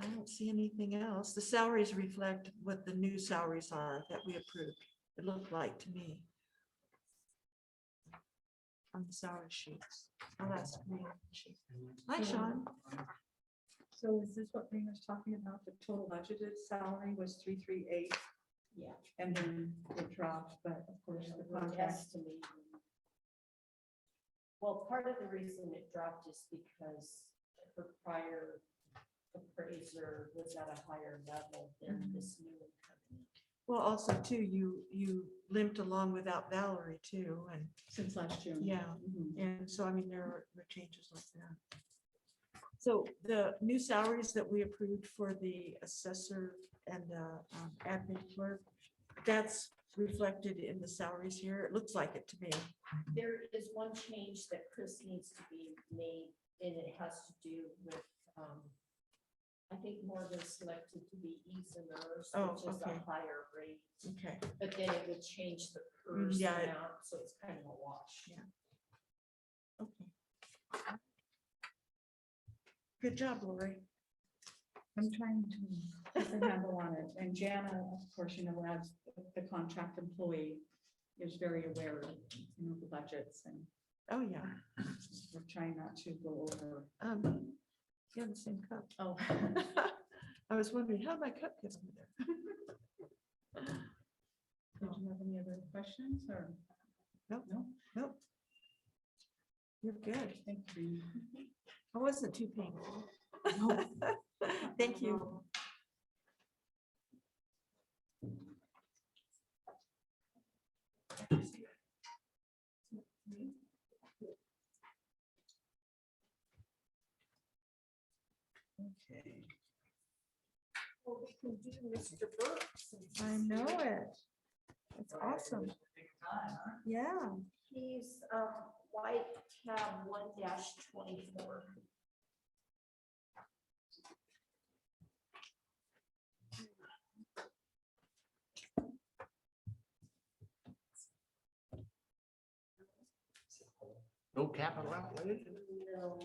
I don't see anything else. The salaries reflect what the new salaries are that we approved. It looked like to me. On the salary sheets. Oh, that's green sheet. Hi, Sean. So is this what Rena was talking about? The total budgeted salary was three, three, eight? Yeah. And then it dropped, but of course, There's the the word contract, estimate. Well, part of the reason it dropped is because her prior appraiser was at a higher level Mm-hmm. than this new company. Well, also too, you, you limped along without Valerie too, and, since last June. Yeah. Mhm. and so, I mean, there were- were changes like that. So the new salaries that we approved for the assessor and the um, admin clerk, that's reflected in the salaries here. It looks like it to me. There is one change that Chris needs to be made, and it has to do with, um, I think Morgan selected to be Eason Nurse, Oh, which is okay. a higher rate, Okay. but then it would change the PERS Mm, yeah, it- amount, so it's kind of a wash. Yeah. Okay. Good job, Lori. I'm trying to get a handle on it. And Jana, of course, you know, as the contract employee is very aware of, you know, the budgets and Oh, yeah. we're trying not to go over. Um, You have the same cup. Oh. I was wondering how my cup gets over there. Did you have any other questions or? Nope. No, Nope. You're good. thank you. I wasn't too painful. Thank you. Okay. Well, we can do Mr. Burke. since I he's know here. it. It's awesome. Yeah. He's, um, white tab one dash twenty-four. No capital outlay? No,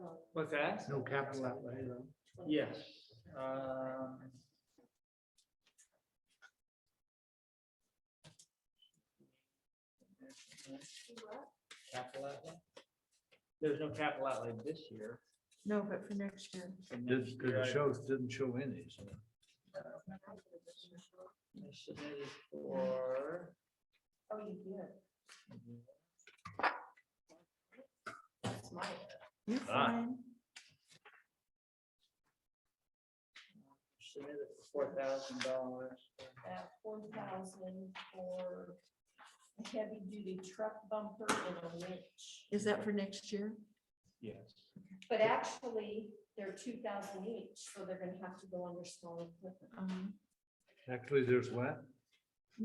um, What's that? No capital outlay, no. Yes. um, Capital outlay? There's no capital outlay this year. No, but for next year. and next Didn't, year it I- shows, didn't show any, so. I Submitted for. Oh, you did. That's my, You're Ah. fine. Submitted for four thousand dollars. that four thousand for a heavy duty truck bumper and a winch. Is that for next year? Yes. But actually, they're two thousand each, so they're gonna have to go under smaller equipment. Um, Actually, there's what?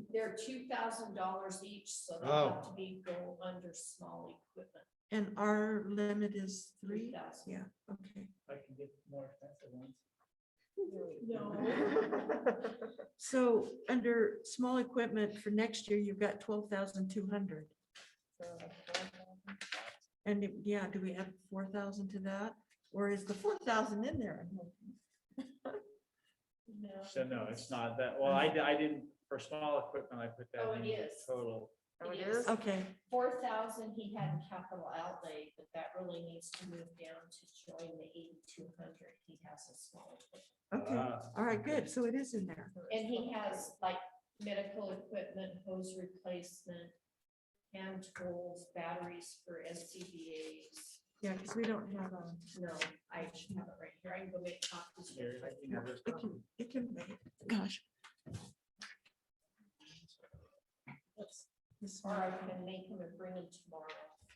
They're two thousand dollars each, so they Oh. have to be go under small equipment, And our limit is three three? thousand. Yeah, okay. I can get more expensive ones. So under small equipment for next year, you've got twelve thousand two hundred. And it- yeah, do we add four thousand to that? Or is the four thousand in there? I'm hoping? So no, it's not that, well, I, di- I didn't, for small equipment, I put that Oh, it in the is. total. It is Okay, four thousand, he had in capital outlay, but that really needs to move down to join the eighty-two hundred. He has a small. equipment. okay. Ah, All right, good. So it is in there. And he has like medical equipment, hose replacement, hand tools, batteries for SCBA's. Yeah, because we don't have um, a, No, I should have it right here. I can go make copies. Here, I can have this it one. can, it can wait. Gosh. Let's- this Or I one. can make him and bring him tomorrow.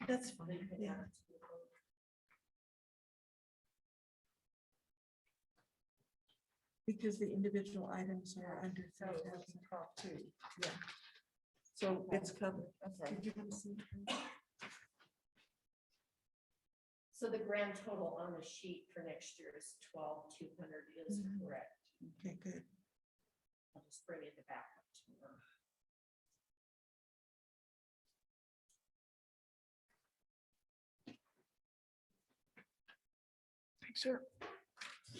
That's They fine, can yeah. add to the vote. Because the individual items are under three thousand two, yeah. So it's covered. Did you want to see? So the grand total on the sheet for next year is twelve, two hundred is Mhm. correct. Okay, good. I'll just bring it back up tomorrow. Thanks, sir.